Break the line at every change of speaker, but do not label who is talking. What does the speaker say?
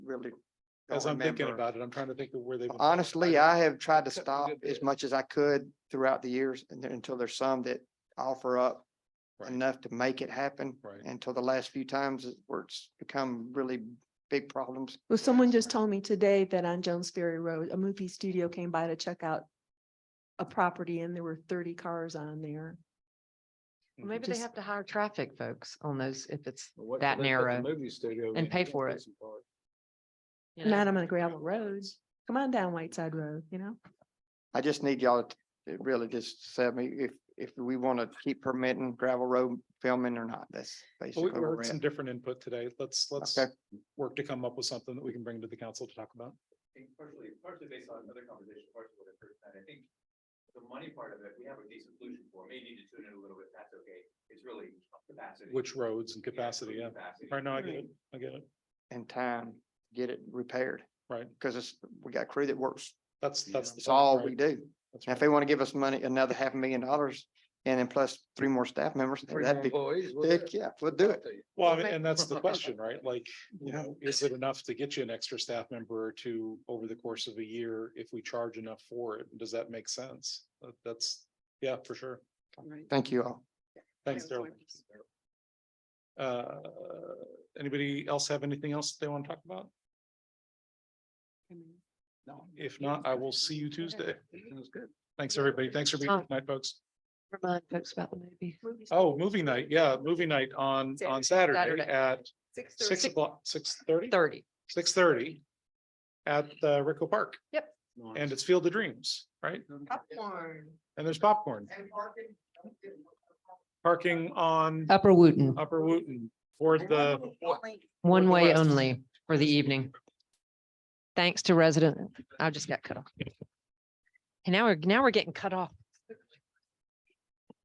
really. don't
As I'm thinking
remember.
about it, I'm trying to think of where they. would-
Honestly, I have tried to stop
Good
as
bit.
much as I could throughout the years and there- until there's some that offer up
Right.
enough to make it happen.
Right.
Until the last few times it- where it's become really big problems.
Well, someone just told me today that on Jones Ferry Road, a movie studio came by to check out a property and there were thirty cars on there.
Mhm.
Maybe they
Just-
have to hire traffic folks on those if it's
Well, what- they
that
put the
narrow.
Movie studio.
and
in,
pay
that's
for it.
decent part.
you know.
Not on a gravel roads. Come on down Whiteside Road, you know?
I just need y'all to to really just say me if, if we want to keep permitting gravel road filming or not, that's
Well, We
basically
we
where we're
heard some
at.
different input today. Let's, let's
Okay.
work to come up with something that we can bring to the council to talk about.
partially, partially based on other conversations, partially what I've heard, and I think the money part of it, we have a decent solution for, may need to tune it a little bit, that's okay, it's really capacity.
Which roads and
Yeah,
capacity, yeah.
capacity.
Right now, I get it. I get it.
And time, to get it repaired.
Right.
Because it's, we got crew that works.
That's,
Yeah.
that's. the
It's
point,
all
right?
we do. And
That's
if
right.
they want to give us money, another half a million dollars and then plus three more staff members,
Three
that'd
more
be,
employees, we'll
heck,
do it.
yeah, we'll do
I'll
it.
tell you.
Well, I
Well,
mean,
may-
and that's the question, right? Like, you know, is it enough to get you an extra staff member or two over the course of a year if we charge enough for it? Does that make sense? That- That's, yeah, for sure.
Thank you all.
Thanks, Daryl. Uh, anybody else have anything else they want to talk about? No. If not, I will see you Tuesday.
Sounds good.
Thanks, everybody. Thanks for being here
Tom.
tonight, folks.
Remind folks about the movie.
Oh, movie night. Yeah, movie night on, on Saturday
Saturday.
at six o'clock, six thirty?
Thirty.
six thirty at uh, Rico Park and it's Field of Dreams, right? And there's popcorn. Parking on
Upper Wooton,
Upper Wooton for the,
one way
Northwest.
only for the evening. Thanks to resident, I just got cut off. And now we're, now we're getting cut off.